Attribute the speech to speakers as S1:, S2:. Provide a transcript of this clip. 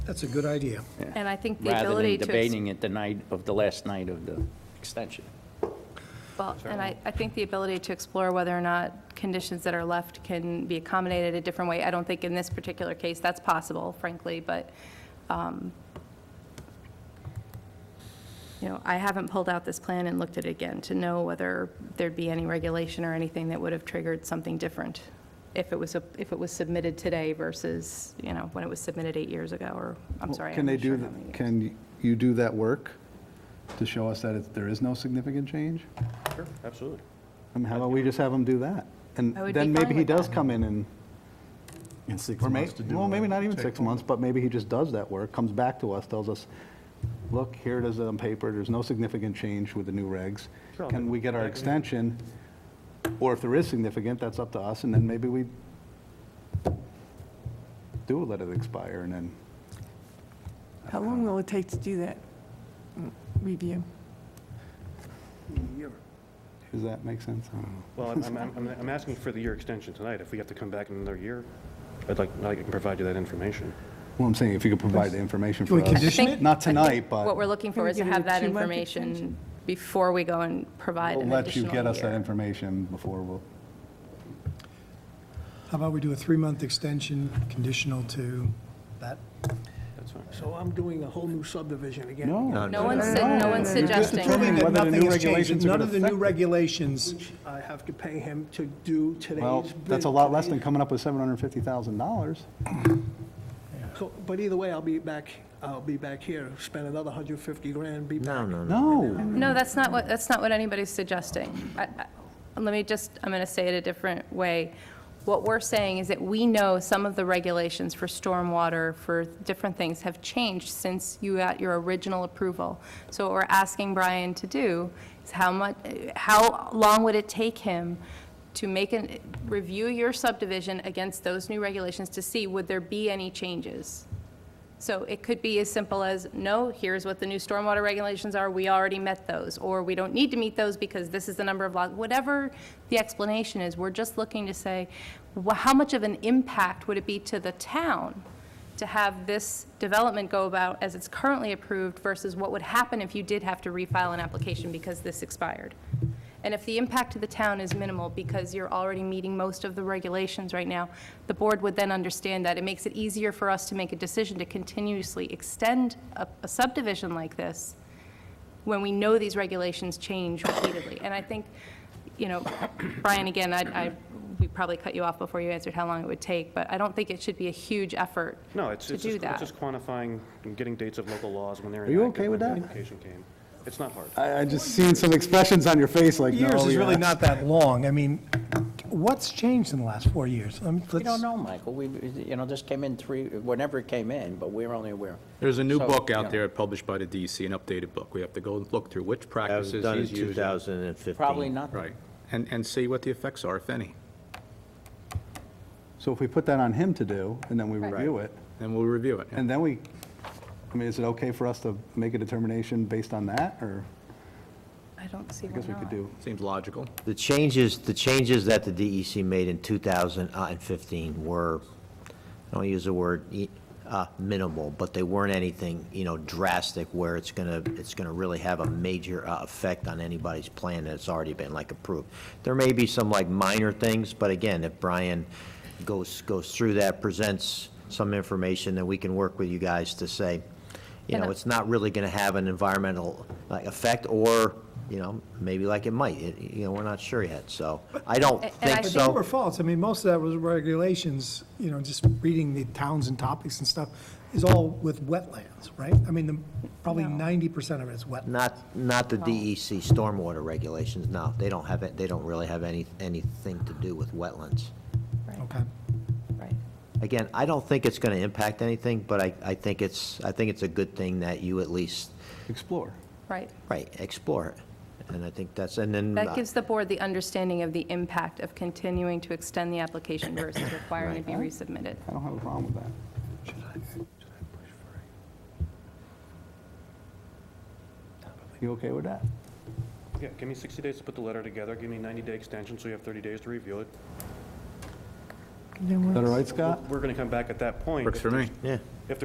S1: That's a good idea.
S2: And I think the
S3: rather
S2: ability
S3: than
S2: to. ex-
S3: debating it the night of the last night of the extension.
S2: Well, and I, I think the ability to explore whether or not conditions that are left can be accommodated a different way. I don't think in this particular case that's possible, frankly, but, um, you know, I haven't pulled out this plan and looked at it again to know whether there'd be any regulation or anything that would have triggered something different if it was, a- if it was submitted today versus, you know, when it was submitted eight years ago, or, I'm
S4: Well,
S2: sorry.
S4: Can
S2: I'm
S4: they
S2: not sure
S4: do,
S2: how
S4: th-
S2: many.
S4: can you do that work to show us that it's- there is no significant change?
S3: Sure, absolutely.
S4: I mean, how about we just have him do that? And
S2: I would be
S4: then maybe
S2: fine
S4: he
S2: with
S4: does
S2: that.
S4: come in and,
S5: In six
S4: or may,
S5: months to do.
S4: well, maybe not even
S5: a-
S4: six months, but maybe he just does that work, comes back to us, tells us, look, here it is on paper, there's no significant change with the new regs.
S5: Sure, I'll
S4: Can
S5: do
S4: we get our
S5: that.
S4: extension? Or if there is significant, that's up to us, and then maybe we do let it expire and then.
S6: How long will it take to do that mm, review?
S4: Does that make sense? I don't know.
S5: Well, I'm- I'm, I'm, I'm asking for the year extension tonight. If we have to come back in another year, I'd like, I can provide you that information.
S4: Well, I'm saying if you could provide the information
S1: Can we
S4: for us.
S1: condition
S2: think-
S4: Not
S2: I think
S4: tonight,
S2: What we're
S4: but
S2: looking for
S6: Can we
S2: is to
S6: give it
S2: have
S6: a
S2: that
S6: two-month
S2: information
S6: extension?
S2: before we go and provide
S4: we'll
S2: an
S4: let you
S2: additional
S4: get us that
S2: year.
S4: information before we'll,
S1: How about we do a three-month extension conditional to that?
S5: That's fine.
S7: So I'm doing a whole new subdivision again.
S4: no.
S2: No one's, su- no one's
S4: You're just
S2: suggesting.
S4: determining
S2: that.
S4: whether the
S1: Nothing
S4: new
S1: has changed.
S4: regulations are
S1: None
S4: gonna
S1: of the
S4: affect
S1: new
S4: it.
S1: regulations,
S7: I have to pay him to do today's.
S4: Well,
S7: bid-
S4: that's a lot less than
S7: today's-
S4: coming up with $750,000.
S7: So- But either way, I'll be back, I'll be back here, spend another 150 grand, be back.
S4: No.
S2: No, that's not what, that's not what anybody's suggesting. I- I- Let me just, I'm going to say it a different way. What we're saying is that we know some of the regulations for stormwater, for different things, have changed since you got your original approval. So what we're asking Brian to do is how much, how long would it take him to make an, review your subdivision against those new regulations to see would there be any changes? So it could be as simple as, no, here's what the new stormwater regulations are, we already met those, or we don't need to meet those because this is the number of lots, whatever the explanation is, we're just looking to say, wh- how much of an impact would it be to the town to have this development go about as it's currently approved versus what would happen if you did have to refile an application because this expired? And if the impact to the town is minimal, because you're already meeting most of the regulations right now, the board would then understand that. It makes it easier for us to make a decision to continuously extend a a subdivision like this when we know these regulations change repeatedly. And I think, you know, Brian, again, I, I- we probably cut you off before you answered how long it would take, but I don't think it should be a huge effort
S5: No, it's,
S2: to
S5: it's
S2: do
S5: just it's
S2: that.
S5: just quantifying and getting dates of local laws when they're
S4: Are you
S5: enacted,
S4: okay with
S5: when the
S4: that?
S5: application came. It's not hard.
S4: I, I just seen some expressions on your face like, no.
S1: years is really
S4: yeah.
S1: not that long. I mean, what's changed in the last four years? I mean,
S3: We don't
S1: let's-
S3: know, Michael. We, you know, this came in three, whenever it came in, but we're only aware.
S8: There's a new
S3: So,
S8: book
S3: yeah.
S8: out there published by the DEC, an updated book. We have to go look through which practices he's using.
S9: That was done in 2015.
S3: Probably not.
S8: Right, and, and see what the effects are, if any.
S4: So if we put that on him to do, and then we review it,
S8: And we'll review it.
S4: and then we, I mean, is it okay for us to make a determination based on that, or
S2: I don't see
S4: I
S2: why
S4: guess we could
S2: not.
S4: do?
S8: Seems logical.
S9: The changes, the changes that the DEC made in 2015 were, I don't use the word e- uh, minimal, but they weren't anything, you know, drastic where it's going to, it's going to really have a major uh, effect on anybody's plan that's already been like approved. There may be some like minor things, but again, if Brian goes, goes through that, presents some information, then we can work with you guys to say, you
S2: And
S9: know,
S2: I-
S9: it's not really going to have an environmental like, effect, or, you know, maybe like it might, It- you know, we're not sure yet, so I don't
S2: A- and I
S9: think
S2: think
S9: so.
S1: They were false. I mean, most of that was regulations, you know, just reading the towns and topics and stuff is all with wetlands, right? I mean, the- probably
S2: No.
S1: 90% of it is wet.
S9: Not, not
S2: Oh.
S9: the DEC stormwater regulations, no. They don't have, it. they don't really have any, anything to do with wetlands.
S1: Okay.
S2: Right.
S9: Again, I don't think it's going to impact anything, but I, I think it's, I think it's a good thing that you at least,
S4: Explore.
S2: Right.
S9: right, explore it. And I think that's, and then.
S2: That gives the board the understanding of the impact of continuing to extend the application versus requiring it be resubmitted.
S4: I don't have a problem with that. You okay with that?
S5: Yeah, give me 60 days to put the letter together, give me a 90-day extension, so you have 30 days to review it.
S6: Then
S4: Is
S6: we'll-
S4: that all right, Scott?
S5: We're going to come back at that point.
S8: Works
S5: if
S8: for
S5: there's-
S8: me.
S9: Yeah.
S5: If